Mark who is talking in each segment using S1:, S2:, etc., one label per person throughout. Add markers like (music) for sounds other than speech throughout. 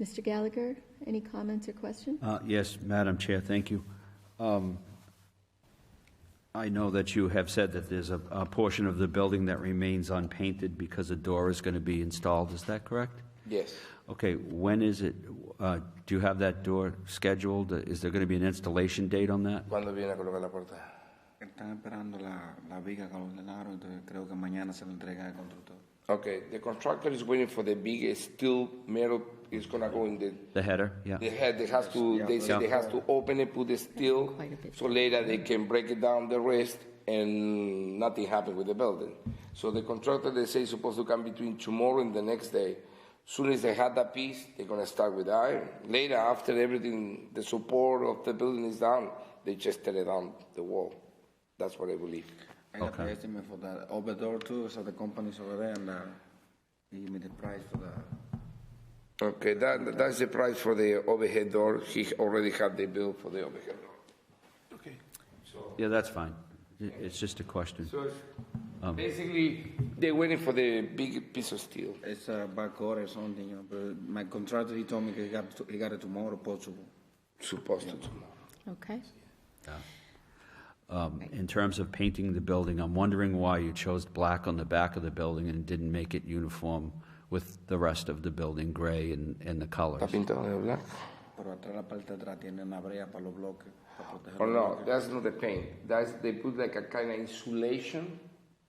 S1: Mr. Gallagher, any comments or questions?
S2: Uh, Yes, Madam Chair, thank you. Um, I know that you have said that there's a a portion of the building that remains unpainted because a door is going to be installed, is that correct?
S3: Yes.
S2: Okay, when is it, uh, do you have that door scheduled? Uh, Is there going to be an installation date on that?
S3: ¿Cuándo viene a colocar la puerta?
S4: Están esperando la, la viga que ordenaron, entonces creo que mañana se la entrega al constructor.
S3: Okay, the contractor is waiting for the big steel metal. It's gonna go in the.
S2: The header, yeah?
S3: They had. They has to. They said they has to open it, put the steel,
S1: Quite a bit.
S3: so later they can break it down the rest, and nothing happened with the building. So the contractor they say is supposed to come between tomorrow and the next day. Soon as they had that piece, they're gonna start with iron. Later, after everything, the support of the building is down, they just tear it down the wall. That's what I believe.
S4: I got the estimate for that. Over door too, so the company's over there and, uh, they give me the price for the,
S3: Okay, that, that's the price for the overhead door. He already had the bill for the overhead door.
S2: Yeah, that's fine. It- It's just a question. Um,
S3: So basically, they're waiting for the big piece of steel.
S4: it's a back order or something, you know, but my contractor, he told me he got, he got it tomorrow possible.
S3: Supposed to tomorrow.
S1: Okay.
S2: Um, In terms of painting the building, I'm wondering why you chose black on the back of the building and didn't make it uniform with the rest of the building, gray and and the colors?
S3: ¿Está pintado de blanco?
S4: Pero atrás, la parte de atrás, tiene una brea para los bloques, para proteger.
S3: Oh
S4: los
S3: no, that's not the paint. That's they put like a kind of insulation,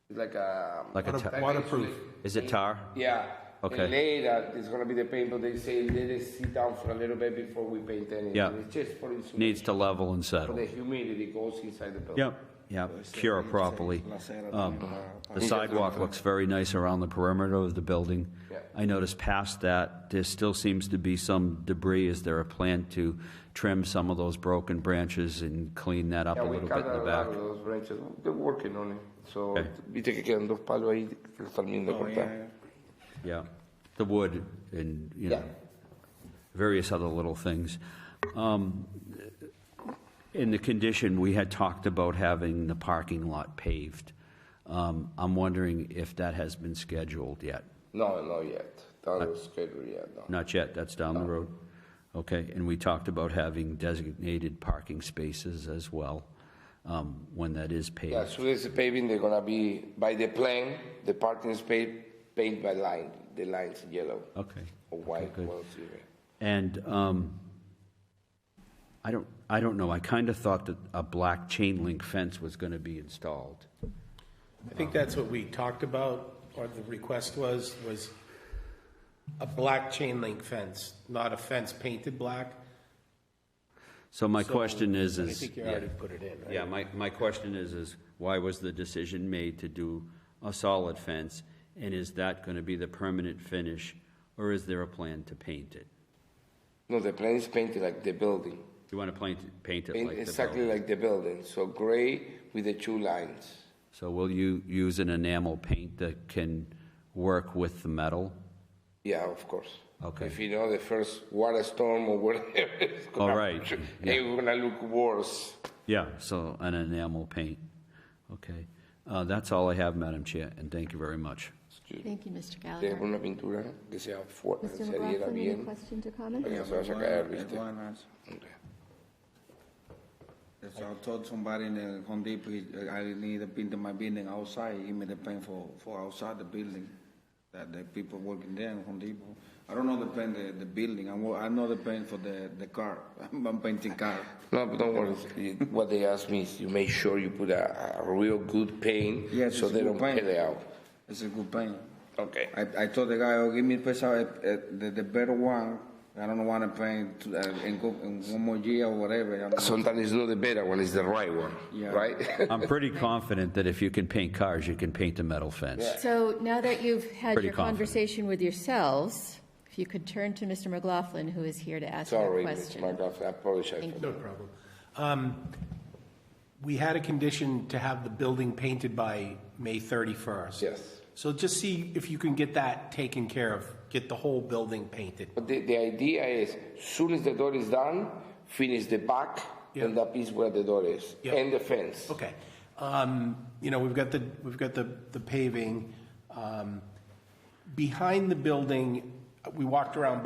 S3: It's like a
S2: Like a
S3: Kind of
S2: ta-
S5: Waterproof.
S3: insulation.
S2: Is it tar?
S3: Yeah.
S2: Okay.
S3: And later it's gonna be the paint, but they say let it sit down for a little bit before we paint anything.
S2: Yeah.
S3: It's just for insulation.
S2: Needs to level and
S3: For
S2: settle.
S3: the humidity goes inside the building.
S2: Yep, yep, cure properly.
S4: bloques. La acera
S2: Um,
S4: también para- para-
S2: The sidewalk looks very nice around the perimeter of the building.
S3: Yeah.
S2: I noticed past that, there still seems to be some debris. Is there a plan to trim some of those broken branches and clean that up a
S3: Yeah, we
S2: little bit
S3: cut
S2: in the
S3: a
S2: back?
S3: lot of those branches. They're working on it. So,
S2: Okay.
S3: viste que quedan dos palos ahí que los terminan de
S4: Oh, yeah,
S3: cortar.
S4: yeah.
S2: Yeah, the wood and, you know, various other little things. Um, In the condition, we had talked about having the parking lot paved. Um, I'm wondering if that has been scheduled yet?
S3: No, not yet.
S2: Ah.
S3: That was scheduled yet. No.
S2: Not yet, that's down the road. Okay, and we talked about having designated parking spaces as well, um, when that is
S3: Yeah,
S2: paved.
S3: as soon as the paving, they're gonna be by the plane. The parking space paint by line. The lines yellow
S2: Okay.
S3: or white.
S2: Oh, good.
S3: well, zero.
S2: And um, I don't, I don't know, I kind of thought that a black chain link fence was going to be installed.
S5: I think that's what we talked about, or the request was, was a black chain link fence, not a fence painted black.
S2: So my
S5: So,
S2: question is,
S5: I
S2: is,
S5: think you already put it in, right?
S2: yeah, my, my question is, is why was the decision made to do a solid fence? And is that going to be the permanent finish, or is there a plan to paint it?
S3: No, the plane is painted like the building.
S2: You want to paint, it- paint it
S3: Paint
S2: like the
S3: exactly
S2: building?
S3: like the building. So gray with the two lines.
S2: So will you use an enamel paint that can work with the metal?
S3: Yeah, of course.
S2: Okay.
S3: If you know the first water storm or whatever, (laughs) it's
S2: All
S3: gonna,
S2: right,
S3: it it's gonna look worse.
S2: Yeah, so an enamel paint. Okay. Uh, That's all I have, Madam Chair, and thank you very much.
S1: Thank you, Mr.
S3: Deja
S1: Gallagher.
S3: una pintura que sea fuerte,
S1: Mr.
S3: se adhiera
S1: McLaughlin, any
S3: bien.
S1: questions or comments?
S3: Yeah, so I should have reached it.
S4: Iguanas.
S3: Okay.
S4: That's what I told somebody in the Home Depot, uh, I need to paint my building outside, give me the paint for, for outside the building, that the people working there in Home Depot. I don't know the paint, the, the building, I, wo- I know the paint for the, the car, (laughs) I'm painting car.
S3: No, but don't worry. You- What they asked me is you make sure you put a, a real good paint
S4: Yes,
S3: so
S4: it's
S3: they
S4: good
S3: don't
S4: paint.
S3: peel it out.
S4: It's a good paint.
S3: Okay.
S4: I, I told the guy, oh, give me pesa, uh, uh, the, the better one, I don't wanna paint uh, in, go- in one more year or whatever. I don't know.
S3: Sometimes it's not the better one, it's the right one,
S1: (laughs)
S4: Yeah.
S3: right?
S2: I'm pretty confident that if you can paint cars, you can paint a metal fence.
S1: So now that you've had
S2: Pretty
S1: your
S2: confident.
S1: conversation with yourselves, if you could turn to Mr. McLaughlin, who is here to ask that
S3: Sorry, Mr.
S1: question.
S3: McGrath, I apologize
S1: Thank
S3: for
S5: No
S3: that.
S5: problem. Um, We had a condition to have the building painted by May 31st.
S3: Yes.
S5: So just see if you can get that taken care of, get the whole building painted.
S3: But the, the idea is, soon as the door is done, finish the back and
S5: Yeah.
S3: that piece where the door is
S5: Yeah.
S3: and the fence.
S5: Okay. Um, You know, we've got the, we've got the the paving. Um, Behind the building, we walked around